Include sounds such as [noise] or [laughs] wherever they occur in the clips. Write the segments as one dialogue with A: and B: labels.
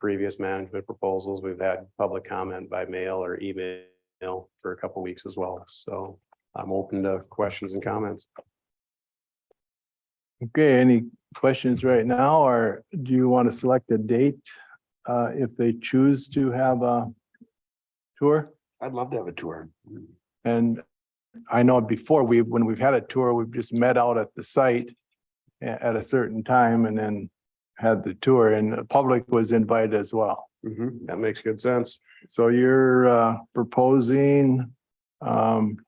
A: previous management proposals. We've had public comment by mail or email for a couple weeks as well. So I'm open to questions and comments.
B: Okay, any questions right now, or do you want to select a date? Uh, if they choose to have a tour?
C: I'd love to have a tour.
B: And I know before we, when we've had a tour, we've just met out at the site a- at a certain time and then had the tour and the public was invited as well.
A: Mhm, That makes good sense.
B: So you're uh, proposing um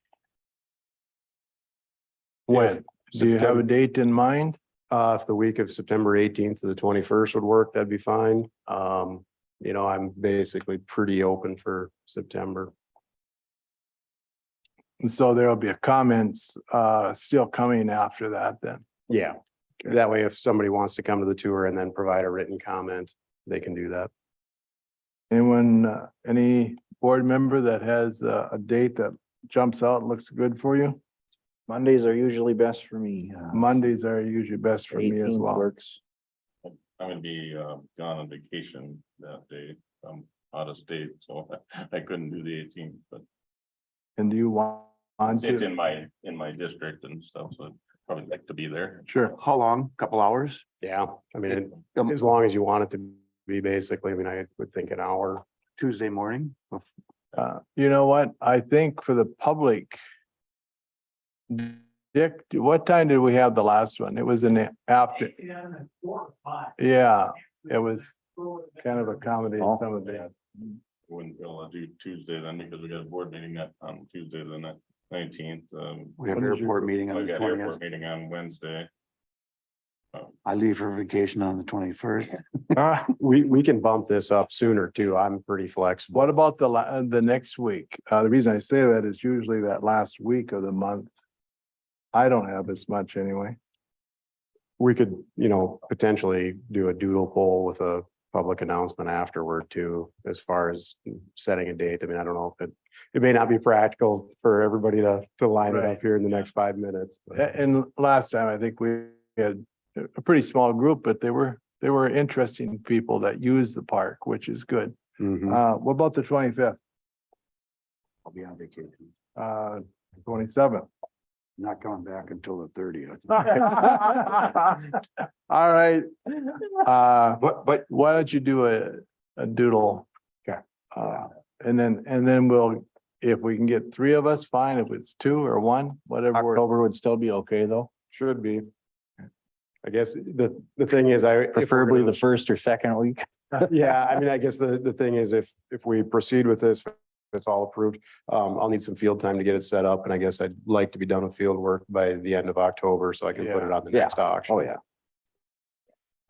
B: when? Do you have a
A: September-
B: date in mind?
A: Uh, if the week of September eighteenth to the twenty-first would work, that'd be fine. Um, you know, I'm basically pretty open for September.
B: And so there'll be a comments uh still coming after that then.
A: Yeah.
B: Okay.
A: That way, if somebody wants to come to the tour and then provide a written comment, they can do that.
B: Anyone, uh, any board member that has a, a date that jumps out, and looks good for you?
C: Mondays are usually best for me. uh,
B: Mondays are usually best for me as
C: 18th
B: well.
C: Works.
D: I'm gonna be uh, gone on vacation that day. I'm out of state, so [laughs] I couldn't do the eighteenth, but
B: And do you want on
D: it's
B: to?
D: in my, in my district and stuff, so I'd probably like to be there.
B: Sure.
C: How long? Couple hours?
A: Yeah, I mean,
C: Um,
A: as long as you want it to be basically, I mean, I would think an hour.
C: Tuesday morning? Bef-
B: Uh, you know what? I think for the public. Dick, what time did we have the last one? It was in the after. Yeah, it was kind of accommodating
C: Oh.
B: some of that.
D: Wouldn't be able to do Tuesday then because we got a board meeting that on Tuesday the nineteenth. um,
C: We have
B: What is your-
C: airport meeting
D: I
C: on the
D: got
C: twentieth.
D: airport meeting on Wednesday.
C: I leave for vacation on the twenty-first.
A: Uh,
B: Ah,
A: We, we can bump this up sooner too. I'm pretty flexible.
B: What about the la, uh, the next week? Uh, the reason I say that is usually that last week of the month. I don't have as much anyway.
A: We could, you know, potentially do a doodle poll with a public announcement afterward too, as far as setting a date. I mean, I don't know if it, it may not be practical for everybody to, to line it
B: Right. Eh,
A: up here in the next five minutes. but-
B: A- And last time, I think we had a- a pretty small group, but they were, they were interesting people that use the park, which is good.
A: Mhm.
B: Uh, what about the twenty-fifth,
C: I'll be on vacation.
B: uh, twenty-seventh? [laughs]
C: Not coming back until the thirtieth. [laughs]
B: All right, uh,
C: But, but
B: why don't you do a, a doodle?
A: Okay.
B: Uh, and then, and then we'll, if we can get three of us, fine, if it's two or one, whatever. works.
E: October would still be okay, though,
A: Should be. I guess the, the thing is, I. if we're
E: preferably
A: gonna-
E: the first or second week.
A: Yeah, I mean, I guess the, the thing is if, if we proceed with this, if it's all approved, um, I'll need some field time to get it set up and I guess I'd like to be done with field work by the end of October so I can put it on the
C: Yeah.
A: next auction.
C: Oh, yeah.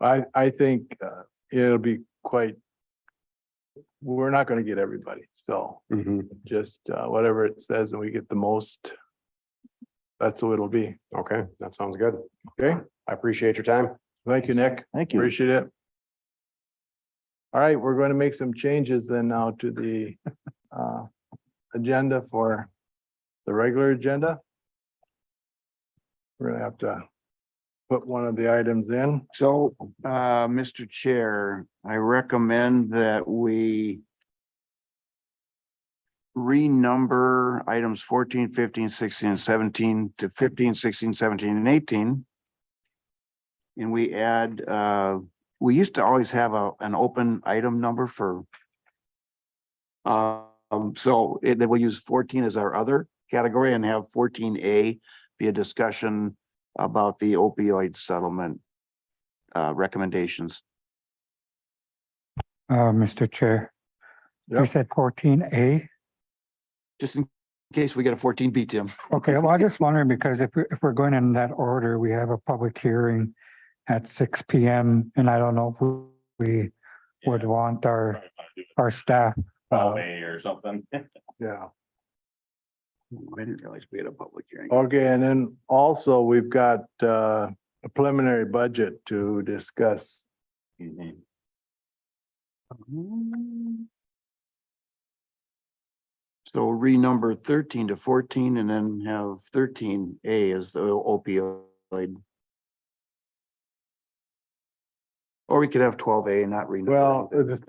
B: I, I think uh, it'll be quite, we're not going to get everybody. So
A: Mhm.
B: just uh, whatever it says and we get the most, that's what it'll be.
A: Okay, that sounds good.
B: Okay.
A: I appreciate your time.
B: Thank you, Nick.
E: Thank you.
B: Appreciate it. All right, we're going to make some changes then now to the uh, agenda for the regular agenda. We're going to have to put one of the items in.
C: So, uh, Mr. Chair, I recommend that we renumber items 14, 15, 16, and seventeen to 15, 16, 17, and eighteen. And we add, uh, we used to always have a, an open item number for um, so it, then we'll use fourteen as our other category and have fourteen A be a discussion about the opioid settlement uh, recommendations.
F: Uh, Mr. Chair, you
B: Yep.
F: said fourteen A.
C: Just in case we get a fourteen B, Tim.
F: Okay, well, I was just wondering because if, we- if we're going in that order, we have a public hearing at six P M. And I don't know if we would want our, our staff. uh,
D: Hallway or something. [laughs]
C: Uh-huh.
B: Yeah.
C: Oh, I didn't realize we had a public hearing.
B: Okay, and then also we've got uh, a preliminary budget to discuss.
D: Mhm.
C: So renumber thirteen to fourteen and then have thirteen A as the opioid. Or we could have twelve A and not renumber.
B: Well,
C: anything.
B: the